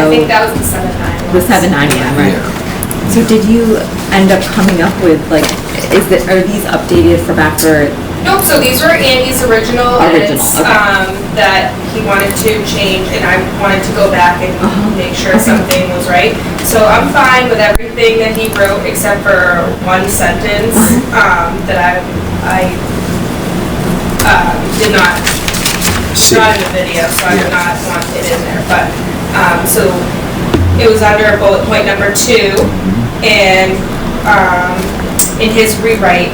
I think know, that was the seven nine. the seven nine one, right? So did you end up coming up with, like, is it, are these updated for back for, Nope, so these were Andy's original Original, edits, okay. um, that he wanted to change, and I wanted to go back and Uh-huh. make sure Okay. something was right. So I'm fine with everything that he wrote except for one sentence, um, that I, I, um, did not, See. not in the video, so I did Yeah. not want it in there, but, um, so it was under bullet point number two, Mm-hmm. and, um, in his rewrite,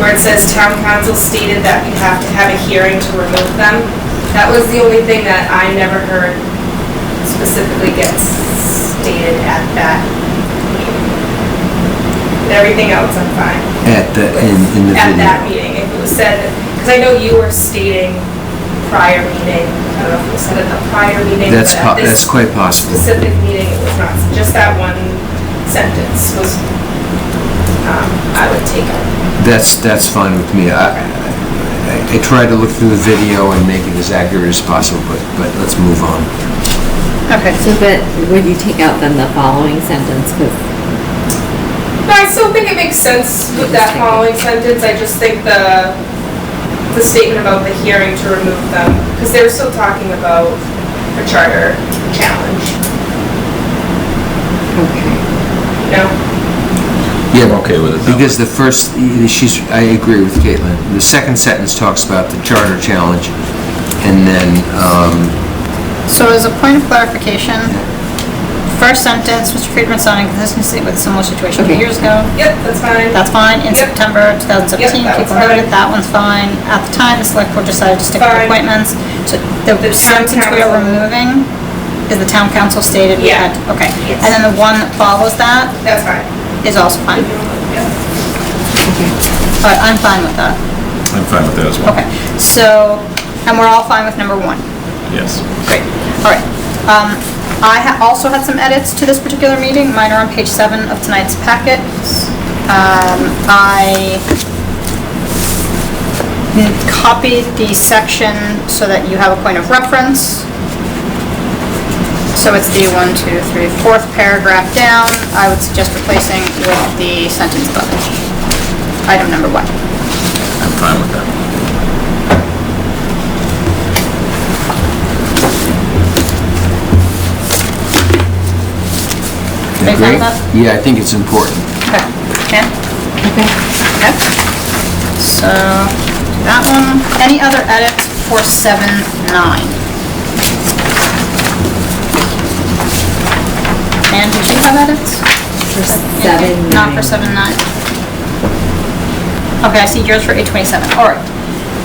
where it says town council stated that we have to have a hearing to remove them. That was the only thing that I never heard specifically get stated at that meeting. But everything else, I'm fine. At the, in, in the At that video. meeting, if it was said, because I know you were stating prior meeting, I don't know if it was said at the prior meeting. That's, but at po- this that's quite possible. Specific meeting, it was not, just that one sentence was, um, I would take out. That's, that's fine with me. I, I- I tried to look through the video and make it as accurate as possible, but, but let's move on. Okay. so that, would you take out then the following sentence? 'Cause- No, I still think it makes sense with that following sentence, I just think the, the statement about the hearing to remove them, because they were still talking about a charter challenge, okay. you know? Yeah, I'm okay with it that way. Because the first, she's, I agree with Caitlin. The second sentence talks about the charter challenge, and then, um, So as a point of clarification, first sentence, Mr. Friedman sounding consistency with similar situation two Okay. years ago. Yep, that's fine. That's fine, in Yep. September 2017, Yep, that people was heard it, fine. that one's fine. At the time, the select board decided to stick Fine. with appointments. So the The town sentence we council. are removing is the town council stated we Yeah. had, okay. Yes. And then the one that follows that That's fine. is also fine, Yep. but I'm fine with that. I'm fine with that as well. Okay, so, and we're all fine with number one. Yes. Great, all right. Um, I ha- also had some edits to this particular meeting, mine are on page seven of tonight's packet. Um, I copied the section so that you have a point of reference. So it's the one, two, three, fourth paragraph down, I would suggest replacing with the sentence above it. Item number one. I'm fine with that. Are you agree? fine with that? Yeah, I think it's important. Okay, yeah? Okay. So, that one, any other edits for seven, nine? And did you have edits? For seven, Not for nine. seven, nine? Okay, I see yours for eight twenty-seven, all right.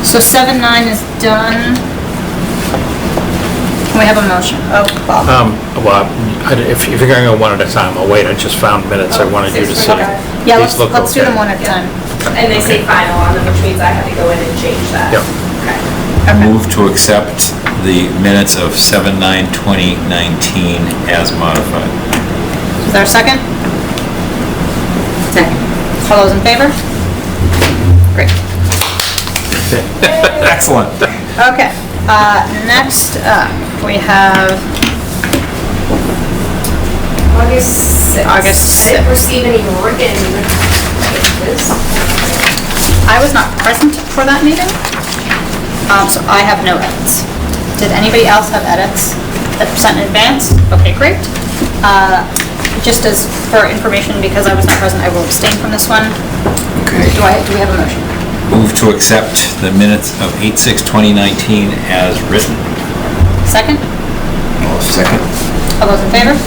So seven, nine is done. Can we have a motion? Oh, Bob. Um, well, I- if if you're going to go one at a time, I'll wait, I just found minutes Oh, I wanted you to see. Okay. Yeah, These let's, look let's do them okay. one at a time. And they say final on them, which means I have to go in and change that. Yep. Okay. Move to accept the minutes of 7/9/2019 as modified. Is there a second? Second. All those in favor? Great. Excellent. Okay, uh, next up, we have, August 6th. August I didn't sixth. receive any written changes. I was not present for that meeting, um, so I have no edits. Did anybody else have edits that were sent in advance? Okay, great. Uh, Just as for information, because I was not present, I will abstain from this one. Okay. Do I, do we have a motion? Move to accept the minutes of 8/6/2019 as written. Second? Well, Second. All those in favor?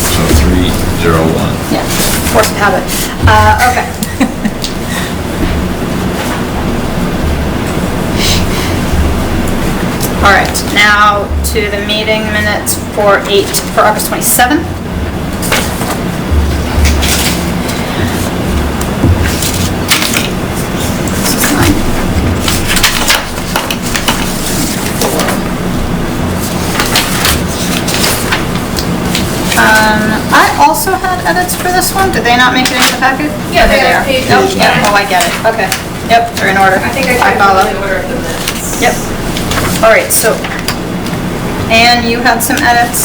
So 301. Yeah, force of habit. Uh, okay. All right, now to the meeting minutes for eight, for August Um, 27th. This is mine. Um, I also had edits for this one, did they not make it into the packet? Yeah, There they're on page Oh, eight. yeah, oh, I get it, okay. Yep, they're in order. I think I follow. tried to order of the minutes. Yep. All right, so And you had some edits